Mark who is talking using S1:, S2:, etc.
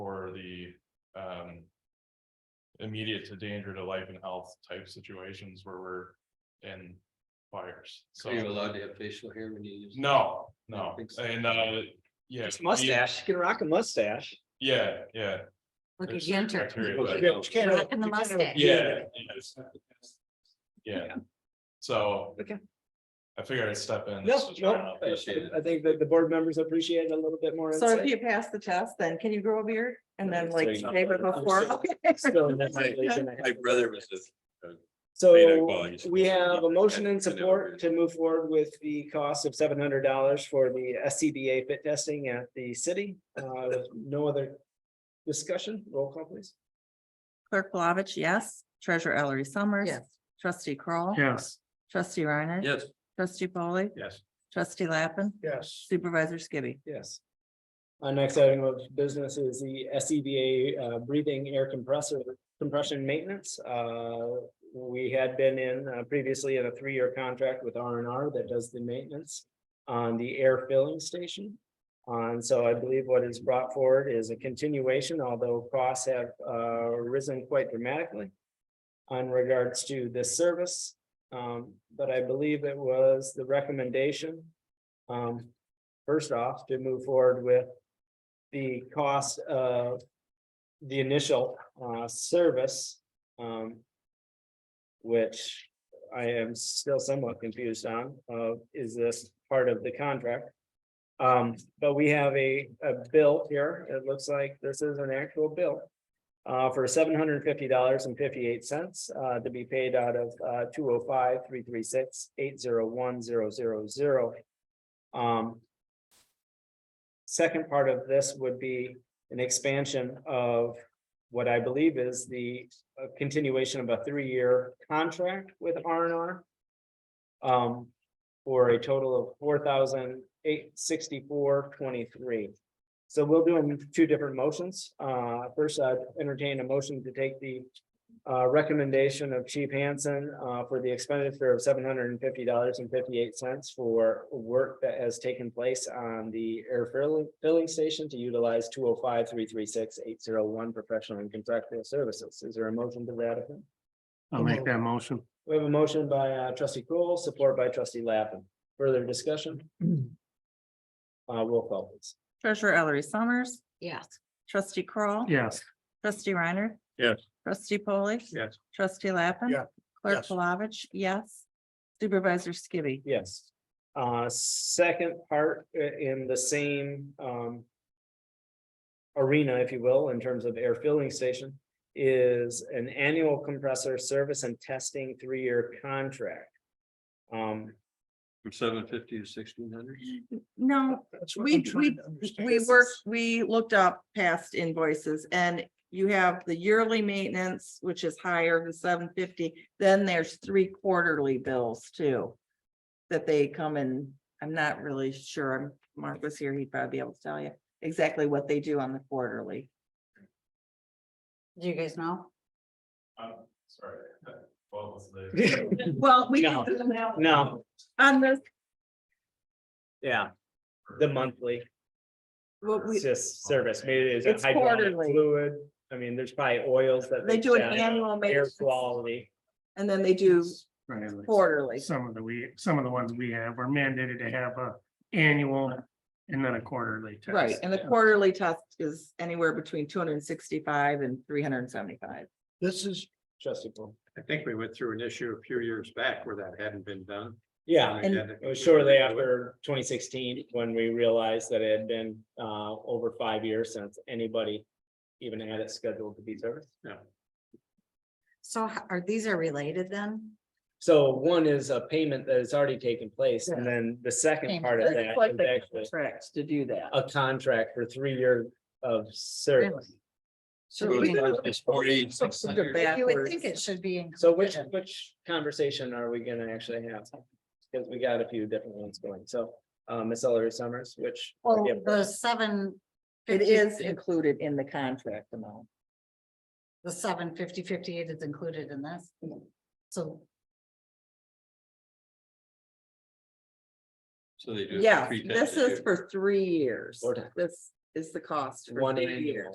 S1: for the, um. Immediate to danger to life and health type situations where we're in fires, so.
S2: So you're allowed to have facial hair when you use.
S1: No,
S2: I
S1: no,
S2: don't think so.
S1: and, uh, yeah.
S3: It's mustache, you can rock a mustache.
S1: Yeah, yeah.
S4: Look
S1: there's
S4: at
S1: certain
S4: Yenter.
S1: criteria,
S2: Yeah,
S1: but-
S2: but you can't
S4: Rock and the mustache.
S1: Yeah. yes. Yeah,
S3: Yeah.
S1: so.
S3: Okay.
S1: I figured I'd step in.
S3: No,
S1: This was
S3: no,
S1: right off.
S3: I
S2: appreciate it.
S3: I think that the board members appreciate a little bit more.
S5: So if
S3: insight.
S5: you pass the test, then can you grow a beard and then like
S2: Thank you.
S5: shave it before?
S3: So that's what they're gonna
S2: My
S3: have.
S2: brother was a Data
S3: So
S2: quality.
S3: we have a motion
S2: I
S3: and
S2: know.
S3: support to move forward with the cost of seven hundred dollars for the SCBA fit testing at the city. Uh, with no other discussion, roll call please.
S5: Clerk Flavich, yes. Treasurer Ellery Summers.
S4: Yes.
S5: Trustee Crawl.
S3: Yes.
S5: Trustee Reiner.
S2: Yes,
S5: Trustee Polly.
S1: Yes,
S5: Trustee Lappin.
S3: Yes.
S5: Supervisor Skibby.
S3: Yes. Our next item of business is the SCBA uh, breathing air compressor compression maintenance. Uh, We had been in uh, previously in a three-year contract with R and R that does the maintenance on the air filling station. Uh, And so I believe what is brought forward is a continuation, although costs have uh, risen quite dramatically in regards to this service. Um, But I believe it was the recommendation um, first off, to move forward with the cost of the initial uh service. Um. Which I am still somewhat confused on, uh, is this part of the contract? Um, but we have a a bill here. It looks like this is an actual bill. Uh, for seven hundred and fifty dollars and fifty-eight cents, uh, to be paid out of uh two oh five, three three six, eight zero one, zero zero zero. Um, Second part of this would be an expansion of what I believe is the uh, continuation of a three-year contract with R and R. Um, for a total of four thousand eight sixty-four twenty-three. So we'll do them two different motions. Uh, first, I entertain a motion to take the uh, recommendation of Chief Hansen, uh, for the expenditure of seven hundred and fifty dollars and fifty-eight cents for work that has taken place on the air filling, filling station to utilize two oh five, three, three, six, eight, zero, one, professional and contractual services. Is there a motion to that? effect?
S6: I'll make that motion.
S3: We have a motion by uh, trustee Kroll, support by trustee Lappin. Further discussion? Uh, roll call please.
S5: Treasurer Ellery Summers.
S4: Yes.
S5: Trustee Crawl.
S6: Yes,
S5: Trustee Reiner.
S2: Yes.
S5: Trustee Polly.
S1: Yes.
S5: Trustee Lappin.
S6: Yeah.
S5: Clerk
S6: Yes.
S5: Flavich, yes. Supervisor Skibby.
S3: Yes. Uh, second part i- in the same, um. Arena, if you will, in terms of air filling station, is an annual compressor service and testing three-year contract. Um,
S2: from seven fifty to sixteen hundred.
S5: No, We, we, we
S3: This
S5: worked,
S3: is-
S5: we looked up past invoices and you have the yearly maintenance, which is higher than seven fifty. Then there's three quarterly bills too. That they come in, I'm not really sure, I'm- Mark was here, he'd probably be able to tell you exactly what they do on the quarterly.
S4: Do you guys know?
S1: I'm sorry. What was the?
S3: no,
S5: Well, we.
S3: No, no,
S5: On this,
S3: yeah, the monthly,
S5: what we,
S3: it's just service, maybe it's a
S5: It's
S3: hydraulic
S5: quarterly.
S3: fluid. I mean, there's probably oils that.
S5: they do an
S3: check,
S5: annual
S3: Air
S5: maintenance
S3: quality.
S5: and then they do
S6: right. like
S5: quarterly.
S6: Some of the we, some of the ones we have are mandated to have a annual and then a quarterly test.
S5: Right, and the quarterly test is anywhere between two hundred and sixty-five and three hundred and seventy-five.
S7: This is,
S3: Trustee Paul.
S7: I think we went through an issue a few years back where that hadn't been done.
S3: Yeah,
S5: And-
S3: it was shortly after twenty sixteen when we realized that it had been uh over five years since anybody even had it scheduled to be serviced.
S4: So h- are these are related then?
S3: So one is a payment that has already taken place, and then the second part of that is actually
S5: Tracks to do that.
S3: a contract for three years of service.
S4: Should we- You would think it
S5: Backwards.
S4: should be.
S3: So which
S4: included.
S3: which conversation are we gonna actually have? Because we got a few different ones going, so uh Ms. Ellery Summers, which.
S4: Well, the seven.
S5: It
S4: 50
S5: is included in the contract amount.
S4: The seven fifty fifty-eight is included in this. So
S2: So they do. it for
S5: Yeah,
S2: three times
S5: this
S2: a
S5: is
S2: year.
S5: for three years.
S3: Or-
S5: This is the cost for
S3: One
S5: three
S3: annual.
S5: years.